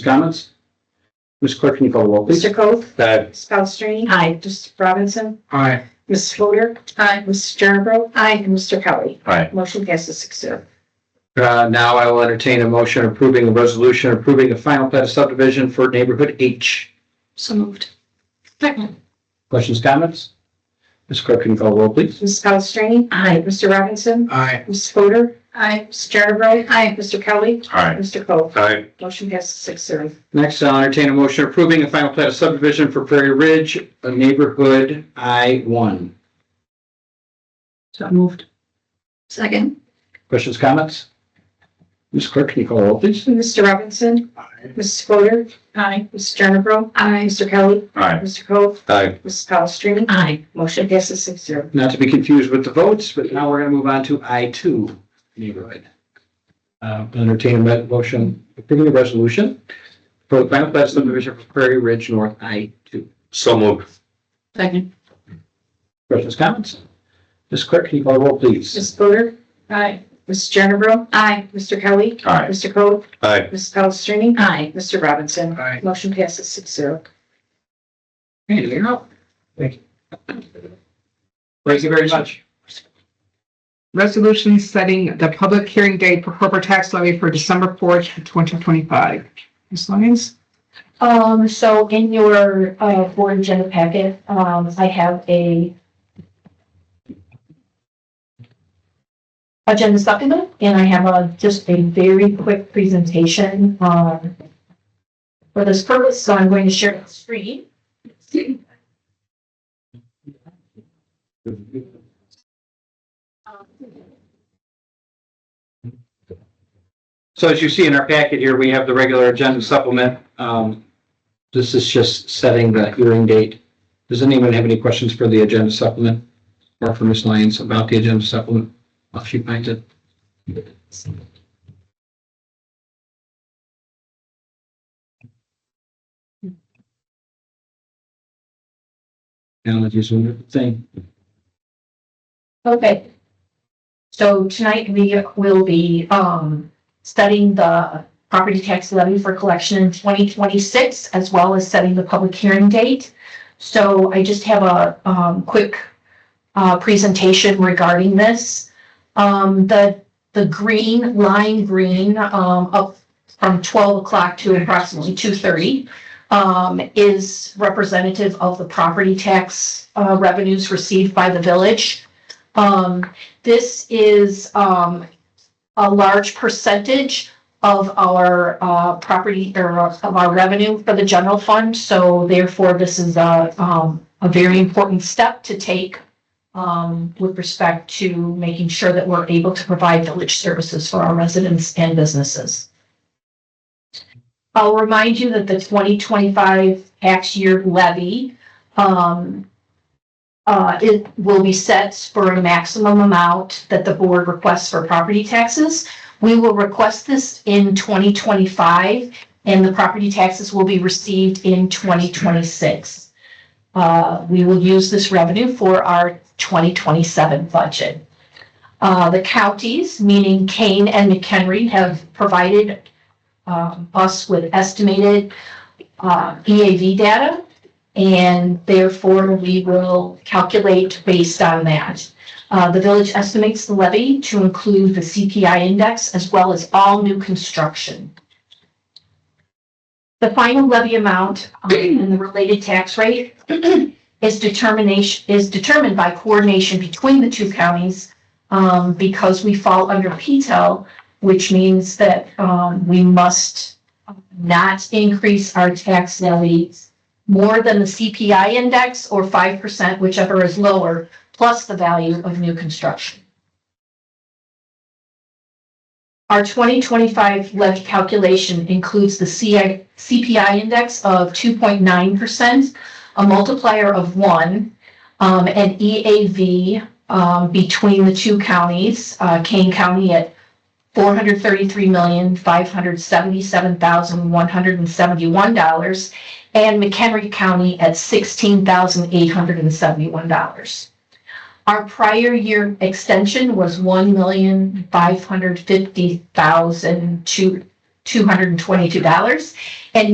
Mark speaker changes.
Speaker 1: Comments? Ms. Clerk, can you call the roll, please?
Speaker 2: Mr. Coth?
Speaker 1: Aye.
Speaker 2: Ms. Palastrellini?
Speaker 3: Aye.
Speaker 2: Mr. Robinson?
Speaker 1: Aye.
Speaker 2: Ms. Fodor?
Speaker 3: Aye.
Speaker 2: Mrs. Jernerbro? Aye. And Mr. Kelly?
Speaker 1: Aye.
Speaker 2: Motion passes six zero.
Speaker 1: Uh, now I will entertain a motion approving a resolution approving the final plat of subdivision for neighborhood H.
Speaker 3: So moved. Second.
Speaker 1: Questions, comments? Ms. Clerk, can you call the roll, please?
Speaker 2: Ms. Palastrellini?
Speaker 3: Aye.
Speaker 2: Mr. Robinson?
Speaker 1: Aye.
Speaker 2: Ms. Fodor?
Speaker 3: Aye.
Speaker 2: Ms. Jernerbro?
Speaker 3: Aye.
Speaker 2: Mr. Kelly?
Speaker 1: Aye.
Speaker 2: Mr. Coth?
Speaker 1: Aye.
Speaker 2: Motion passes six zero.
Speaker 1: Next, I'll entertain a motion approving a final plat of subdivision for Prairie Ridge, a neighborhood I one.
Speaker 3: So moved. Second.
Speaker 1: Questions, comments? Ms. Clerk, can you call the roll, please?
Speaker 2: Mr. Robinson?
Speaker 1: Aye.
Speaker 2: Ms. Fodor?
Speaker 3: Aye.
Speaker 2: Ms. Jernerbro?
Speaker 3: Aye.
Speaker 2: Mr. Kelly?
Speaker 1: Aye.
Speaker 2: Mr. Coth?
Speaker 1: Aye.
Speaker 2: Ms. Palastrellini?
Speaker 3: Aye.
Speaker 2: Motion passes six zero.
Speaker 1: Not to be confused with the votes, but now we're going to move on to I two neighborhood. Uh, entertain a mo- motion, approving the resolution for the final plat of subdivision for Prairie Ridge North I two.
Speaker 4: So moved.
Speaker 3: Second.
Speaker 1: Questions, comments? Ms. Clerk, can you call the roll, please?
Speaker 2: Ms. Fodor?
Speaker 3: Aye.
Speaker 2: Ms. Jernerbro?
Speaker 3: Aye.
Speaker 2: Mr. Kelly?
Speaker 4: Aye.
Speaker 2: Mr. Coth?
Speaker 4: Aye.
Speaker 2: Ms. Palastrellini?
Speaker 3: Aye.
Speaker 2: Mr. Robinson?
Speaker 1: Aye.
Speaker 2: Motion passes six zero.
Speaker 1: Hey, you're up. Thank you. Thank you very much.
Speaker 5: Resolution setting the public hearing date for corporate tax levy for December fourth, twenty twenty-five. Ms. Lyons?
Speaker 6: Um, so in your, uh, board agenda packet, um, I have a agenda supplement, and I have a, just a very quick presentation, um, for this purpose, so I'm going to share the screen.
Speaker 1: So as you see in our packet here, we have the regular agenda supplement. Um, this is just setting the hearing date. Does anyone have any questions for the agenda supplement? Or for Ms. Lyons about the agenda supplement? If she finds it. Technology is a wonderful thing.
Speaker 6: Okay. So tonight we will be, um, studying the property tax levy for collection in twenty twenty-six as well as setting the public hearing date. So I just have a, um, quick, uh, presentation regarding this. Um, the, the green, line green, um, up from twelve o'clock to approximately two thirty um, is representative of the property tax, uh, revenues received by the village. Um, this is, um, a large percentage of our, uh, property or of our revenue for the general fund. So therefore, this is a, um, a very important step to take, um, with respect to making sure that we're able to provide village services for our residents and businesses. I'll remind you that the twenty twenty-five tax year levy, um, uh, it will be set for a maximum amount that the board requests for property taxes. We will request this in twenty twenty-five, and the property taxes will be received in twenty twenty-six. Uh, we will use this revenue for our twenty twenty-seven budget. Uh, the counties, meaning Kane and McHenry, have provided, um, us with estimated, uh, EAV data. And therefore, we will calculate based on that. Uh, the village estimates the levy to include the CPI index as well as all new construction. The final levy amount um, and the related tax rate is determination, is determined by coordination between the two counties um, because we fall under PTEL, which means that, um, we must not increase our tax levies more than the CPI index or five percent, whichever is lower, plus the value of new construction. Our twenty twenty-five levy calculation includes the CI CPI index of two point nine percent, a multiplier of one, um, and EAV, um, between the two counties, uh, Kane County at four hundred thirty-three million, five hundred seventy-seven thousand, one hundred and seventy-one dollars, and McHenry County at sixteen thousand eight hundred and seventy-one dollars. Our prior year extension was one million five hundred fifty thousand two two hundred and twenty-two dollars. And